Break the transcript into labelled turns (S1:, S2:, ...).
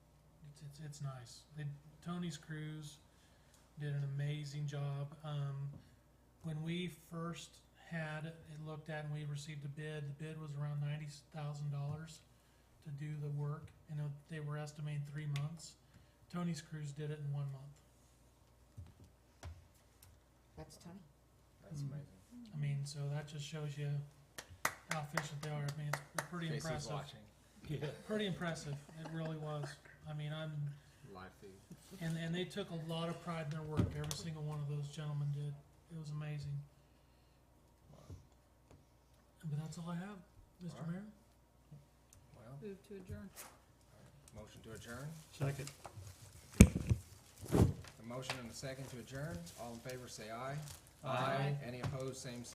S1: it's nice. They, Tony's Cruise did an amazing job. Um, when we first had it looked at and we received a bid, the bid was around ninety thousand dollars to do the work, and uh, they were estimating three months. Tony's Cruise did it in one month.
S2: That's Tony.
S3: That's
S1: Mm.
S3: amazing.
S1: I mean, so that just shows you how efficient they are. I mean, it's pretty
S3: Casey's
S1: impressive.
S3: watching
S1: Pretty impressive. It really was. I mean, I'm
S3: live feed.
S1: and and they took a lot of pride in their work. Every single one of those gentlemen did. It was amazing.
S3: Wow.
S1: But that's all I have, Mr.
S3: All right.
S1: Mayor.
S3: Well,
S4: Move to adjourn.
S3: motion to adjourn.
S5: Second.
S3: The motion and the second to adjourn. All in favor, say aye.
S4: Aye.
S3: Any opposed, same sign.